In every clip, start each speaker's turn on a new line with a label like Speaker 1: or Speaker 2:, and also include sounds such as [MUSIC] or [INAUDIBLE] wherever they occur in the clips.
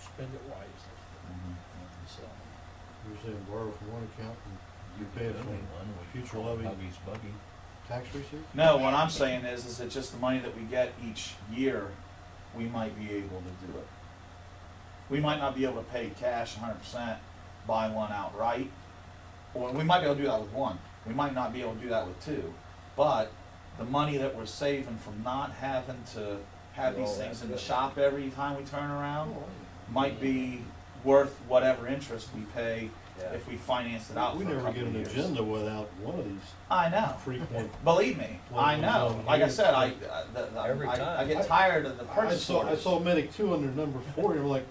Speaker 1: spend it wisely, so.
Speaker 2: You're saying borrow from one account and you pay it from future
Speaker 3: Well,
Speaker 2: levy
Speaker 3: Huggy's buggy.
Speaker 2: tax receipts?
Speaker 4: No, what I'm saying is, is that just the money that we get each year, we might be able to do it. We might not be able to pay cash hundred percent, buy one outright, or we might be able to do that with one, we might not be able to do that with two. But the money that we're saving from not having to have these
Speaker 1: Roll that
Speaker 4: things in the
Speaker 1: through.
Speaker 4: shop every time we turn around
Speaker 2: Oh,
Speaker 4: might be worth whatever interest we pay
Speaker 1: Yeah.
Speaker 4: if we finance it out
Speaker 2: We
Speaker 4: for a
Speaker 2: never
Speaker 4: couple
Speaker 2: get
Speaker 4: of
Speaker 2: an
Speaker 4: years.
Speaker 2: agenda without one of these
Speaker 4: I know.
Speaker 5: [LAUGHS]
Speaker 2: frequent.
Speaker 4: Believe me,
Speaker 2: Well,
Speaker 4: I know.
Speaker 2: well,
Speaker 4: Like I
Speaker 2: you-
Speaker 4: said, I, I- the, the,
Speaker 1: Every
Speaker 4: I, I
Speaker 1: time.
Speaker 4: get tired of the
Speaker 2: I
Speaker 4: purchase
Speaker 2: saw, I
Speaker 4: orders.
Speaker 2: saw Medic two under number four and I'm like,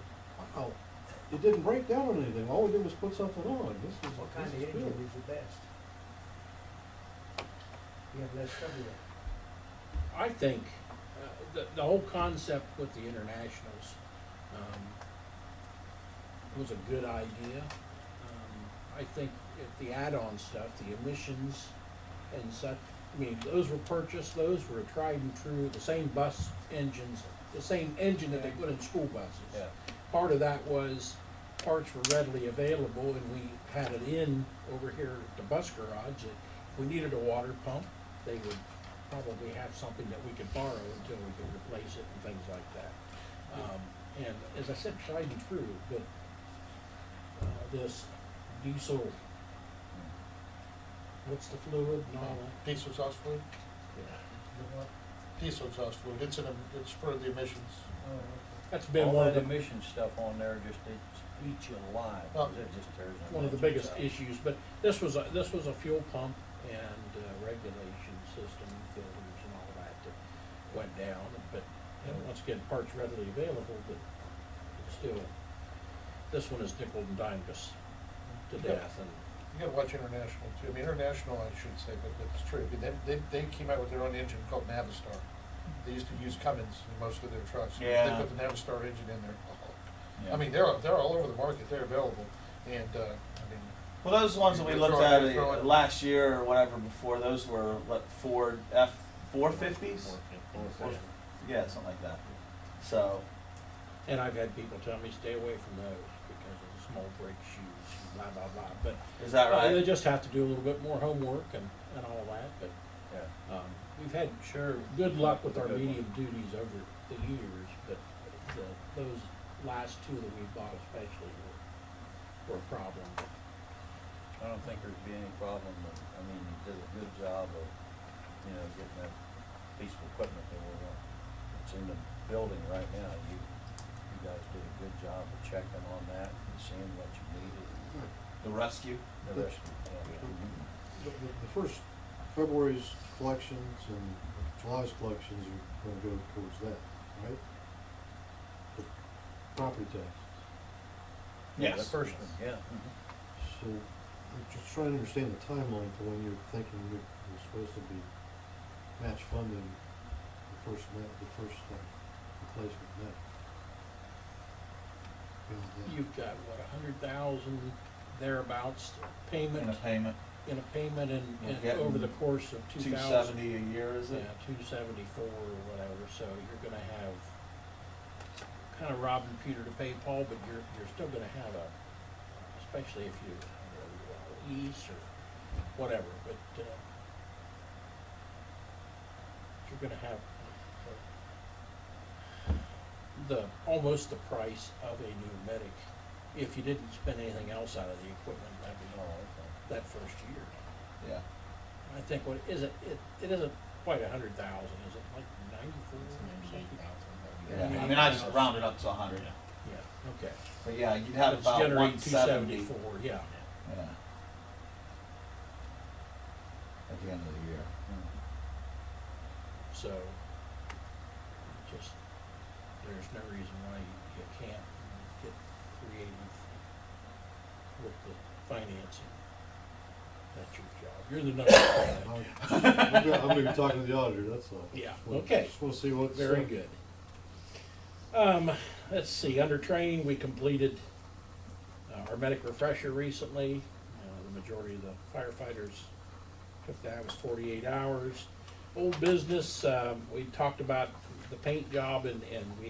Speaker 2: wow, it didn't break down on anything. All we did was put something on. This
Speaker 6: What kind
Speaker 2: is,
Speaker 6: of
Speaker 2: this is
Speaker 6: engine
Speaker 2: good.
Speaker 6: is the best? You have less trouble with.
Speaker 1: I think uh, the, the whole concept with the internationals um, was a good idea. Um, I think if the add-on stuff, the emissions and such, I mean, those were purchased, those were tried and true, the same bus engines, the same engine that they put in school buses.
Speaker 3: Yeah.
Speaker 1: Part of that was parts were readily available and we had it in over here at the bus garage that if we needed a water pump, they would probably have something that we could borrow until we could replace it and things like that. Um, and as I said, tried and true, but, uh, this diesel, what's the fluid and all that?
Speaker 5: Diesel exhaust fluid,
Speaker 1: Yeah.
Speaker 5: diesel exhaust fluid, it's an, it's for the emissions.
Speaker 6: Oh,
Speaker 1: That's been
Speaker 3: All
Speaker 1: one of
Speaker 3: that
Speaker 1: the,
Speaker 3: emission stuff on there just eats, eats you alive, 'cause it just tears. them
Speaker 1: one of the
Speaker 3: up.
Speaker 1: biggest issues, but this was, a this was a fuel pump and uh, regulation system, filters and all that that went down, but, you know, once again, parts readily available, but still, this one is nickel and dimed us to death and.
Speaker 5: You gotta watch international too, I mean, international, I should say, but it's true, But they, they, they came out with their own engine called Navistar. They used to use Cummins in most of their trucks.
Speaker 4: Yeah.
Speaker 5: They put the Navistar engine in there.
Speaker 4: Yeah.
Speaker 5: I mean, they're, they're all over the market, they're available, and, uh, I mean,
Speaker 4: Well, those ones that we
Speaker 5: Throw it,
Speaker 4: looked at
Speaker 5: throw
Speaker 4: uh,
Speaker 5: it.
Speaker 4: last year or whatever before, those were what Ford F four fifties? Yeah, something like that. So,
Speaker 1: And I've had people tell me stay away from those because of the small brake shoes, blah, blah, blah. But
Speaker 4: is that
Speaker 1: uh, they
Speaker 4: right?
Speaker 1: just have to do a little bit more homework and, and all that. But
Speaker 3: Yeah.
Speaker 1: um, we've had sure good luck with our
Speaker 3: Good one.
Speaker 1: medium duties over the years, but the, those last two that we bought especially were, were a problem.
Speaker 3: I don't think there'd be any problem, with- I mean, he did a good job of, you know, getting that piece of equipment that we want. It's in the building right now, you, you guys did a good job of checking on that and seeing what you needed
Speaker 4: The rescue?
Speaker 3: and the rest of it.
Speaker 2: The, the the first, February's collections and July's collections are gonna go towards that, right? The Property tax.
Speaker 3: Yeah, The
Speaker 4: Yes.
Speaker 3: first one, yeah.
Speaker 2: So, I'm just trying to understand the timeline for when you're thinking you're, you're supposed to be match funding the first, ma- the first, uh, replacement net. Beyond that.
Speaker 1: You've got, what, a hundred thousand thereabouts
Speaker 4: And a
Speaker 1: payment,
Speaker 4: payment,
Speaker 1: in a payment and,
Speaker 4: We're
Speaker 1: and
Speaker 4: getting
Speaker 1: over the course of two
Speaker 4: two
Speaker 1: thousand.
Speaker 4: seventy a year, is
Speaker 1: Yeah,
Speaker 4: it?
Speaker 1: two seventy-four or whatever, so you're gonna have, kinda robbing Peter to pay Paul, but you're, you're still gonna have a, especially if you, uh, lease or whatever, but, uh, you're gonna have uh, the, almost the price of a new medic, if you didn't spend anything else out of the equipment
Speaker 3: Oh,
Speaker 1: levy
Speaker 3: okay.
Speaker 1: that first year.
Speaker 4: Yeah.
Speaker 1: I think what is it, it, it isn't quite a hundred thousand, is it like ninety-four or something?
Speaker 4: Yeah, I mean, I just rounded up to a hundred,
Speaker 1: Yeah, okay.
Speaker 4: but yeah, you'd have
Speaker 1: Let's
Speaker 4: about
Speaker 1: generate
Speaker 4: one seventy.
Speaker 1: 274, yeah.
Speaker 4: Yeah. At the end of the year.
Speaker 1: So, just, there's no reason why you, you can't get creative with the financing. That's your job. You're the number
Speaker 4: [COUGHS] Oh,
Speaker 1: one.
Speaker 2: I'm I'm gonna, I'm gonna be talking to the auditor, that's all.
Speaker 1: Yeah,
Speaker 2: Well,
Speaker 1: okay.
Speaker 2: Just wanna see what's.
Speaker 1: Very
Speaker 2: uh,
Speaker 1: good. Um, let's see, under training, we completed uh, our medic refresher recently. Uh, The majority of the firefighters took that, it was forty-eight hours. Old business, um, we talked about the paint job and, and we